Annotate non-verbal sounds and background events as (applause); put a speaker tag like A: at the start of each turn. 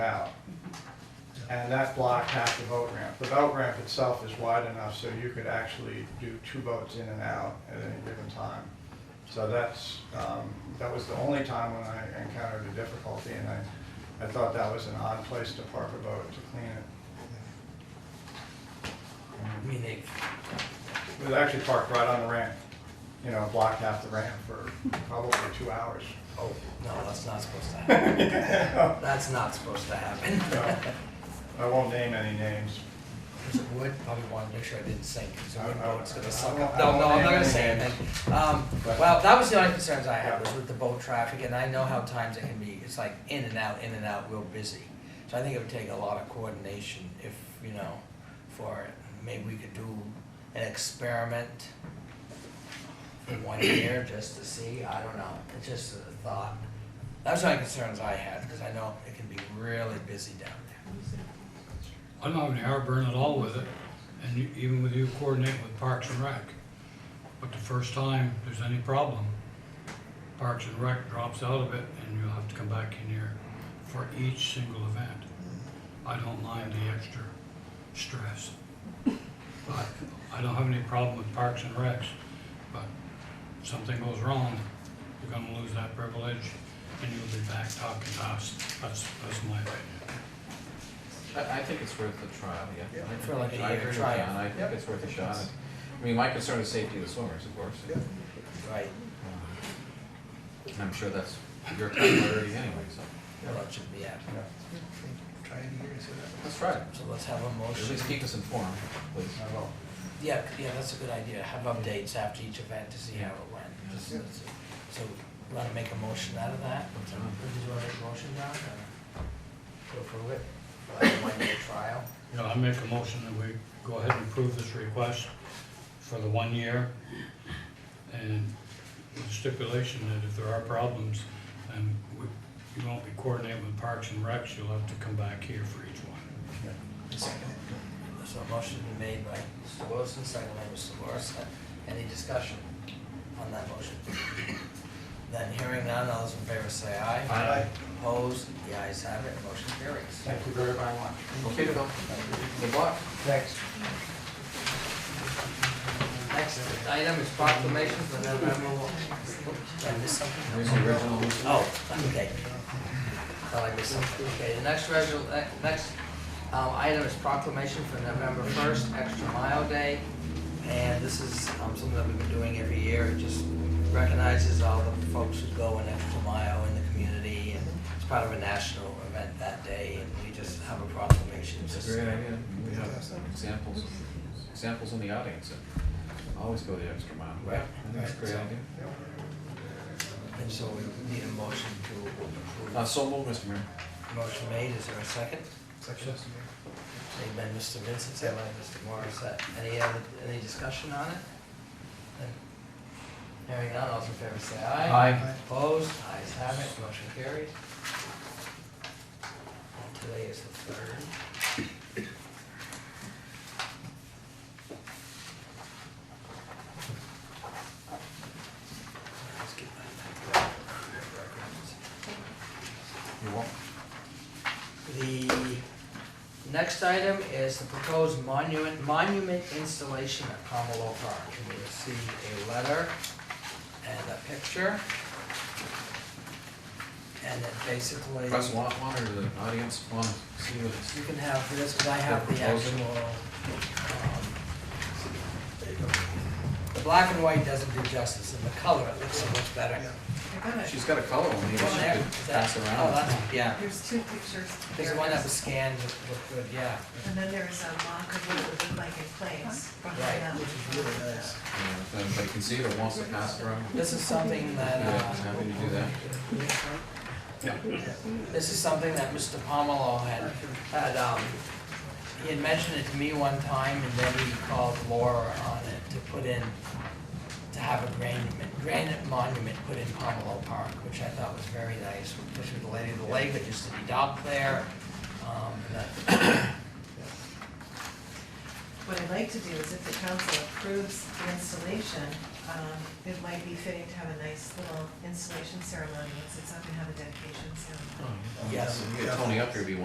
A: out. And that blocked half the boat ramp. The boat ramp itself is wide enough so you could actually do two boats in and out at any given time. So that's, um, that was the only time when I encountered a difficulty, and I, I thought that was an odd place to park a boat to clean it.
B: I mean, they,
A: It was actually parked right on the ramp, you know, blocked half the ramp for probably two hours. (laughs)
B: oh, no, that's not supposed to happen.
A: I
B: That's not supposed to happen.
A: won't name any names.
B: There's a wood, probably wanted to make sure I didn't sink, because the
A: I-
B: wood
A: I-
B: boat's
A: I
B: gonna suck
A: won't-
B: up.
A: I
B: No, no, I'm
A: won't
B: not gonna
A: name
B: say
A: any
B: anything. Um,
A: But-
B: well, that was the only concerns I had,
A: Yeah.
B: was with the boat traffic, and I know how times it can be, it's like in and out, in and out, real busy. So I think it would take a lot of coordination if, you know, for, maybe we could do an experiment for one year, just to see, I don't know, it's just a thought. That's the only concerns I had, because I know it can be really busy down there.
C: I don't have any heartburn at all with it, and you- even with you coordinating with Parks and Rec. But the first time there's any problem, Parks and Rec drops out of it, and you'll have to come back in here for each single event. I don't mind the extra stress. But I don't have any problem with Parks and Recs, but if something goes wrong, you're gonna lose that privilege, and you'll be back talking to us. That's, that's my opinion.
D: I, I think it's worth a trial, yeah. I
B: For like a
D: I
B: year
D: agree with
B: trial.
D: John, I think it's worth a shot. I mean, my concern is safety of the swimmers, of course.
B: Right,
D: And I'm sure that's your priority anyway, so.
B: well, that should be happening.
A: Yeah,
E: Try it here, so that.
D: Let's try it.
B: So let's have a
D: At
B: motion.
D: least keep us informed, please.
A: I will.
B: Yeah, c- yeah, that's a good idea. Have updates after each event to see how it went. Just-
E: Yeah.
B: that's it. So, want to make a motion out of that? Did
D: Sure.
B: you want to make a motion, John? or Go through it, like a one-day trial?
C: Yeah, I make a motion that we go ahead and approve this request for the one year. And with stipulation that if there are problems, then we, you won't be coordinating with Parks and Recs, you'll have to come back here for each one.
B: So a motion been made by Mr. Wilson, second by Mr. Morrison. Any discussion on that motion? Then hearing none, all those in favor say aye.
D: Aye.
B: Opposed, the ayes have it, motion carries.
A: Thank you very much.
D: Okay, Phil? Good luck.
A: Thanks.
B: Next item is proclamation for November. Oops, Did I miss something?
D: Here's the original.
B: Oh, okay. Thought I missed something. Okay, the next resol, eh, next um, item is proclamation for November first, Extra Mile Day. And this is um, something that we've been doing every year. It just recognizes all the folks who go an extra mile in the community. And it's part of a national event that day, and we just have a proclamation.
D: It's a
B: Just-
D: great idea. We have examples, examples in the audience that always go the extra mile.
B: Right.
D: I think it's a great idea.
B: And so we need a motion to approve.
D: Uh, so moved, Mr. Mayor.
B: Motion made, is there a second?
E: Section.
B: Made by Mr. Vincent, second by Mr. Morris. Uh, Any other, any discussion on it? Hearing none, all those in favor say aye.
D: Aye.
B: Opposed, ayes have it, motion carries. And Today is the third. Let's get my- records.
D: You won't?
B: The next item is the proposed monument, monument installation at Pomelo Park. And we received a letter and a picture. And it basically,
D: Press one, one or the audience, one, see what it's.
B: you can have this, because I have the
D: Proposal.
B: actual, um, the black and white doesn't do justice, and the color, it looks so much better.
E: Yeah.
D: She's got a color one, maybe she
B: Well, there-
D: could
B: that-
D: pass
B: Oh,
D: around.
B: that's, yeah,
F: There's two pictures.
B: there's the
F: There
B: one
F: it
B: that was
F: is.
B: scanned, looked good, yeah.
F: And then there is a mock of what it would look like in place behind
B: Right,
F: them.
B: which is really nice.
D: Yeah, If anybody can see it or wants to pass it around,
B: This is something that,
D: yeah,
B: uh,
D: I'm happy to do that.
B: this is something that Mr. Pomelo had, had, um, he had mentioned it to me one time, and then he called Laura on it to put in, to have a granite, granite monument put in Pomelo Park, which I thought was very nice, especially the lady of the lake that used to be docked there. Um, and that-
F: What I'd like to do is if the council approves the installation, um, it might be fitting to have a nice little installation ceremony, since it's not gonna have a dedication ceremony.
B: Yes.
D: Get Tony up here if you want.